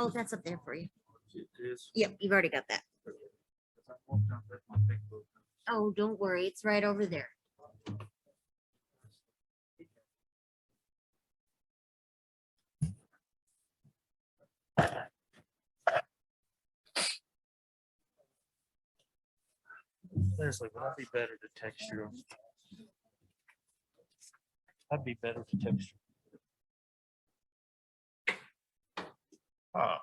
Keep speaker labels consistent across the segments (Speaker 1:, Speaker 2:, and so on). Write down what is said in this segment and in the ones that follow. Speaker 1: Oh, that's up there for you.
Speaker 2: It is.
Speaker 1: Yep, you've already got that.
Speaker 2: I walked down that one big book.
Speaker 1: Oh, don't worry, it's right over there.
Speaker 2: Leslie, would I be better to text you? I'd be better to text you. Ah.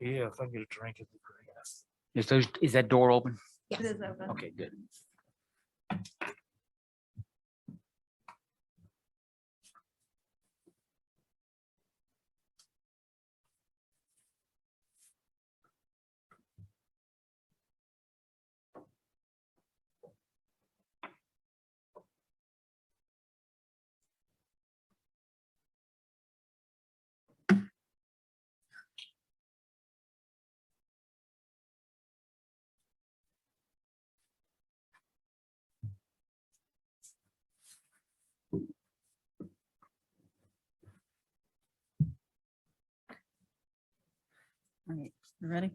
Speaker 2: Yeah, if I get a drink, it'd be great.
Speaker 3: Is those, is that door open?
Speaker 1: Yes.
Speaker 4: It is open.
Speaker 3: Okay, good.
Speaker 5: All right, you ready?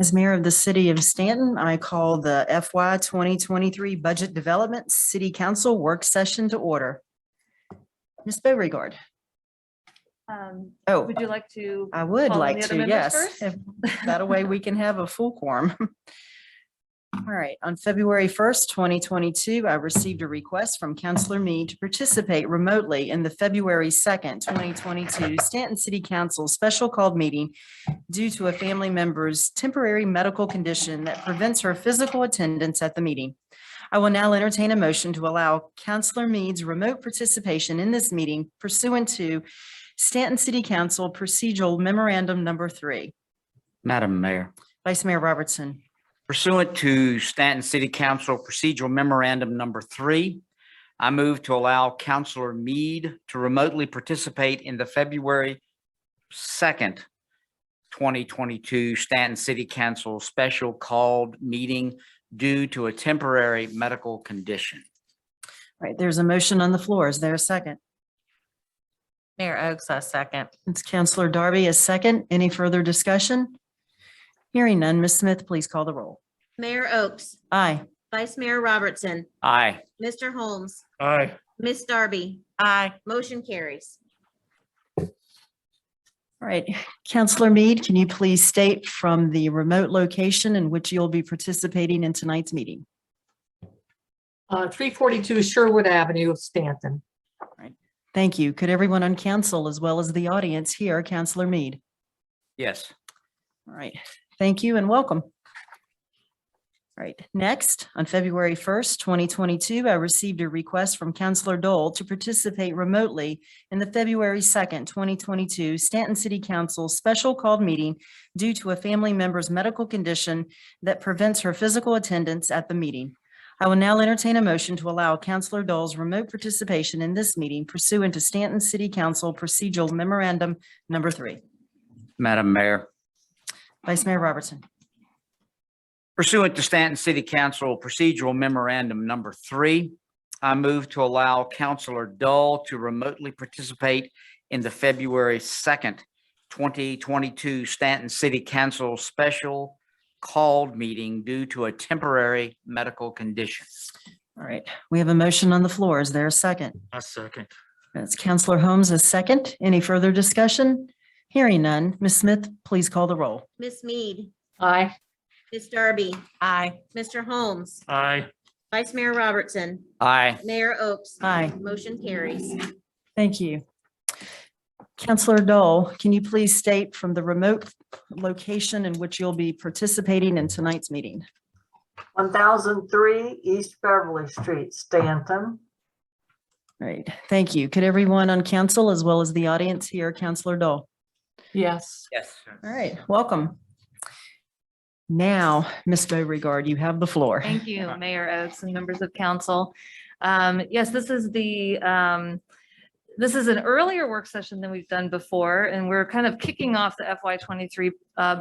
Speaker 5: As mayor of the city of Stanton, I call the FY 2023 Budget Development City Council Work Session to order. Ms. Beauregard,
Speaker 4: Um,
Speaker 5: oh,
Speaker 4: Would you like to?
Speaker 5: I would
Speaker 4: call on the
Speaker 5: like
Speaker 4: other
Speaker 5: to,
Speaker 4: members
Speaker 5: yes.
Speaker 4: first?
Speaker 5: if That a way we can have a full quorum. All right, on February first, twenty twenty-two, I received a request from Counselor Mead to participate remotely in the February second, twenty twenty-two Stanton City Council Special Called Meeting due to a family member's temporary medical condition that prevents her physical attendance at the meeting. I will now entertain a motion to allow Counselor Mead's remote participation in this meeting pursuant to Stanton City Council Procedural Memorandum Number Three.
Speaker 3: Madam Mayor,
Speaker 5: Vice Mayor Robertson.
Speaker 3: pursuant to Stanton City Council Procedural Memorandum Number Three, I move to allow Counselor Mead to remotely participate in the February second, twenty twenty-two Stanton City Council Special Called Meeting due to a temporary medical condition.
Speaker 5: All Right, there's a motion on the floor. Is there a second?
Speaker 6: Mayor Oakes, I second.
Speaker 5: It's Counselor Darby, a second. Any further discussion? Hearing none, Ms. Smith, please call the roll.
Speaker 1: Mayor Oakes,
Speaker 5: Aye.
Speaker 1: Vice Mayor Robertson,
Speaker 3: Aye.
Speaker 1: Mr. Holmes,
Speaker 2: Aye.
Speaker 1: Miss Darby,
Speaker 6: Aye.
Speaker 1: motion carries.
Speaker 5: All right, Counselor Mead, can you please state from the remote location in which you'll be participating in tonight's meeting?
Speaker 7: Uh, three forty-two Sherwood Avenue, Stanton.
Speaker 5: Thank you. Could everyone on council as well as the audience hear Counselor Mead?
Speaker 3: Yes.
Speaker 5: All right, thank you and welcome. All right, next, on February 1st, 2022, I received a request from Counselor Dole to participate remotely in the February 2nd, 2022 Stanton City Council Special Called Meeting due to a family member's medical condition that prevents her physical attendance at the meeting. I will now entertain a motion to allow Counselor Dole's remote participation in this meeting pursuant to Stanton City Council Procedural Memorandum Number Three.
Speaker 3: Madam Mayor,
Speaker 5: Vice Mayor Robertson.
Speaker 3: Pursuant to Stanton City Council Procedural Memorandum Number Three, I move to allow Counselor Dull to remotely participate in the February second, twenty twenty-two Stanton City Council Special Called Meeting due to a temporary medical condition.
Speaker 5: All right, we have a motion on the floor. Is there a second?
Speaker 2: I second.
Speaker 5: That's Counselor Holmes, a second. Any further discussion? Hearing none. Ms. Smith, please call the roll.
Speaker 1: Miss Mead,
Speaker 7: Aye.
Speaker 1: Miss Darby,
Speaker 6: Aye.
Speaker 1: Mr. Holmes,
Speaker 2: Aye.
Speaker 1: Vice Mayor Robertson,
Speaker 3: Aye.
Speaker 1: Mayor Oakes.
Speaker 5: Aye.
Speaker 1: Motion carries.
Speaker 5: Thank you. Counselor Dole, can you please state from the remote location in which you'll be participating in tonight's meeting?
Speaker 8: One thousand three East Beverly Street, Stanton.
Speaker 5: All Right, thank you. Could everyone on council as well as the audience hear Counselor Dole?
Speaker 7: Yes.
Speaker 3: Yes.
Speaker 5: All right, welcome. Now, Ms. Beauregard, you have the floor.
Speaker 6: Thank you, Mayor Oakes and members of council. Um, Yes, this is the, um, this is an earlier work session than we've done before, and we're kind of kicking off the FY23 uh,